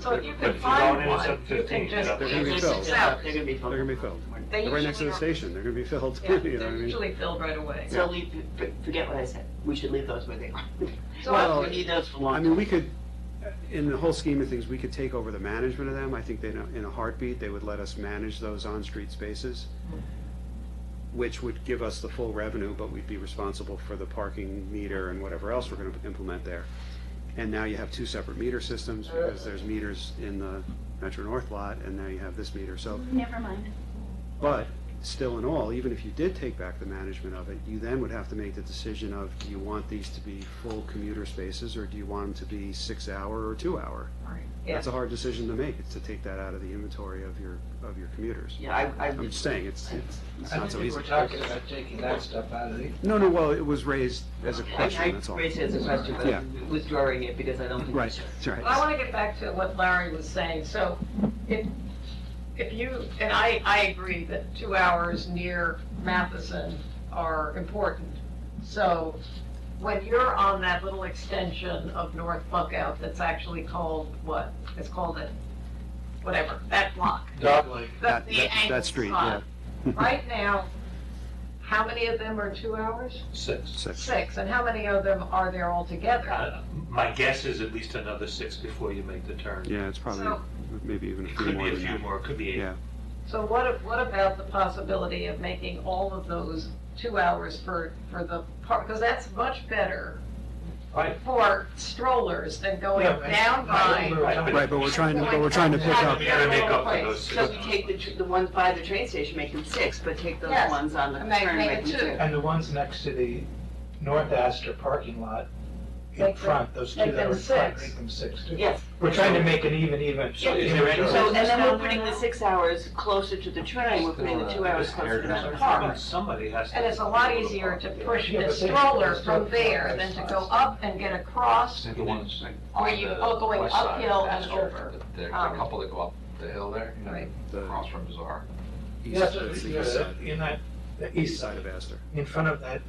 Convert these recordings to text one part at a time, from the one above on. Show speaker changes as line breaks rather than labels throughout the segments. So if you
But
can
if you don't,
find
then it's
one,
up to
you can
15,
just.
They're
gonna be
just
filled.
accept.
They're gonna be filled.
They're gonna be filled.
They
They're right next to the
usually
station, they're gonna be filled, you
Yeah,
know what I
They're
mean?
usually filled right away.
So leave, f- forget what I said, we should leave those where they are.
So-
Well, we need those for long.
I mean, we could, in the whole scheme of things, we could take over the management of them. I think they, know- in a heartbeat, they would let us manage those on-street spaces, which would give us the full revenue, but we'd be responsible for the parking meter and whatever else we're gonna implement there. And now you have two separate meter systems, because there's meters in the Metro North lot, and now you have this meter, so.
Never mind.
But still in all, even if you did take back the management of it, you then would have to make the decision of, do you want these to be full commuter spaces or do you want them to be six hour or two hour?
Yeah,
That's a hard decision to make, it's to take that out of the inventory of your, of your commuters.
Yeah, I, I.
I'm just saying, it's, it's it's
I don't
not so
think
easy.
we're talking about taking that stuff out of the,
No, no, well, it was raised as a question, that's all.
I raised it as a question, but
Yeah.
I'm withdrawing it because I don't think. we
Right,
should.
that's
but I
right.
want to get back to what Larry was saying, so if, if you, and I, I agree that two hours near Matheson are important. So when you're on that little extension of North Buckout that's actually called, what, it's called it, whatever, that block.
dog leg.
That's
That,
the
that,
angle
that street, yeah,
spot. Right now, how many of them are two hours?
Six.
six.
Six, and how many of them are there altogether?
Uh, My guess is at least another six before you make the turn.
Yeah, it's probably,
So-
maybe even a
It
few
could
more
be a
than
few
that.
more, it could be eight.
Yeah,
So what, if- what about the possibility of making all of those two hours for, for the park? Because that's much better
Right.
for strollers than going
Yeah,
Oh,
right.
down by.
right, but we're trying to, but we're trying to pick up.
We gotta make up for those
So
six.
we take the, tr- the ones by the train station, make them six, but take those
Yes.
ones on the
And make-
turn,
make
make
it
them
two.
two.
And the ones next to the North Astor parking lot in
Make them-
front, those two
make
that
them
were in front,
six.
make them six too.
Yes,
We're trying to make it even, even.
So is there any-
so, and then we're putting the six hours closer to the train, we're putting the two hours
uh,
closer to the park.
Somebody has to.
And it's a lot easier to push
Yeah,
the
but they-
stroller from there than to go up and get across.
The ones
Are
on
you
the
all going
west side
uphill
of
and
Astor,
over?
the- There's
Um,
a couple that go up the hill there, you know,
Right.
The
across from Bazaar.
east-
Yes,
that's the
yeah,
east side.
in that, the
East
east
side
side,
of Astor,
in front of that,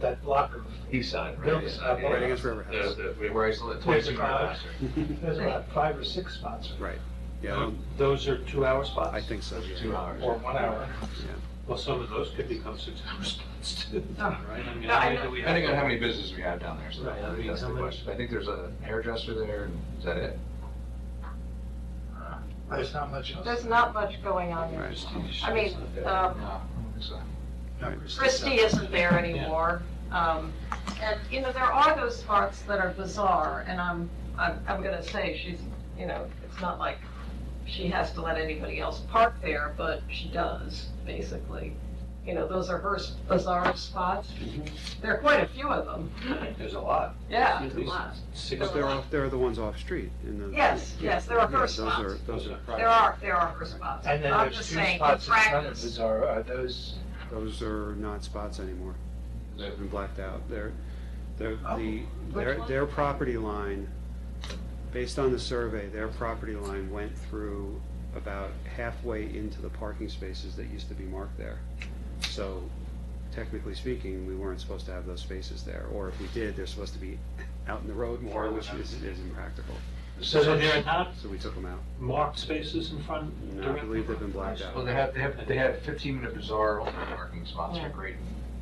that block of
East side,
buildings.
Yeah.
out there.
right against River House.
The- the-
Where I used to live, twice
There's
a
a crowd.
year.
There's about five or six spots,
Right, yeah, I
we-
don't-
um, Those are two-hour spots?
I think so,
Two
yeah.
hours.
or one hour.
Well, some of those could become six-hour spots too, right?
Oh.
I mean,
No, I
how many
know.
do we have?
Depending on how many businesses we have down there, so
Right, I mean,
that's
how
the
many-
question. I think there's a hairdresser there, and is that it?
There's not much else.
There's not much going on there.
Right.
I mean, um,
No, I don't think so.
Christie isn't there anymore. Um, And, you know, there are those parts that are bizarre, and I'm, I'm, I'm gonna say she's, you know, it's not like she has to let anybody else park there, but she does, basically. You know, those are her s- bizarre spots.
Mm-hmm.
There are quite a few of them.
There's a lot.
uh, Yeah,
At least six.
But there are, there are the ones off-street in the.
yes, yes, there
Yeah,
are her
those are,
spots.
those are,
There are, there are her spots.
And then
I'm
there's
just
two
saying, in
spots in front of
practice,
Bizarro, are those,
those are not spots anymore. They've been blacked out. They're, they're, the,
Which
their,
one?
their property line, based on the survey, their property line went through about halfway into the parking spaces that used to be marked there. So technically speaking, we weren't supposed to have those spaces there, or if we did, they're supposed to be out in the road more,
Farther
which
out.
is, is impractical.
So there are not
So we took them out.
marked spaces in front
And I
directly?
believe they've been blacked out.
Well, they have, they have, they have fifteen-minute Bazaar, only parking spots
Yeah.
are great,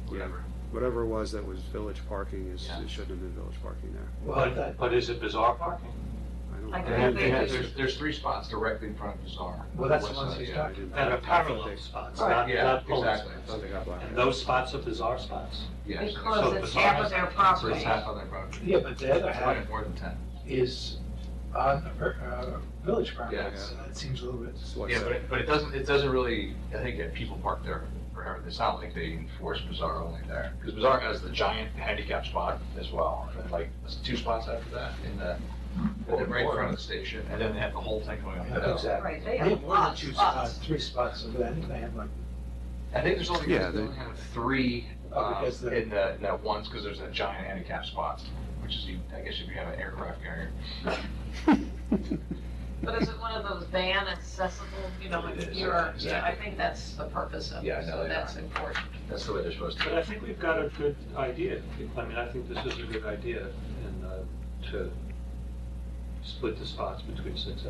whatever.
Whatever it was that was village parking is,
Yeah.
it shouldn't have been village parking there.
well, that,
But, but is it bizarre parking?
I don't
I
know.
They have, they have,
They-
there's, there's three spots directly in front of Bazaar.
well, that's the
West
ones
side,
he's
yeah.
talking
didn't-
That are
I
parallel
thought
spots,
Right.
not,
Yeah,
not pole
exactly.
spots.
they- I thought they got blacked
And
out.
those spots are bizarre spots.
Yes.
because
So
it's
bizarre.
half of their
So it's
property.
half on their property.
Yeah, but the other
It's probably
half
more than ten.
is on the per- uh, village
Yeah.
property, so that seems a little bit.
That's what I
Yeah,
said.
but it, but it doesn't, it doesn't really, I think that people park there forever, it's not like they enforce Bazaar only there. Because Bazaar has the giant handicap spot as well, and then, like, there's two spots after that in the,
Oh,
and then right in front of the station, and then they have the whole thing going up. the hill.
Right, they
They
have
have more than
lots,
two
lots.
spots, three spots over there, I think they have like,
I think there's only,
Yeah,
there's
they-
only kind of three,
Oh,
um,
because the-
in the, in that ones, because there's that giant handicap spot, which is, you- I guess if you have an aircraft carrier.
But is it one of those van accessible, you know,
It
like
is,
you're, yeah, I
exactly.
think that's the purpose of
Yeah,
it,
no,
so
they
that's
are.
important.
That's the way they're supposed
But
to.
I think we've got a good idea. I mean, I think this is a good idea, and, uh, to split the spots between six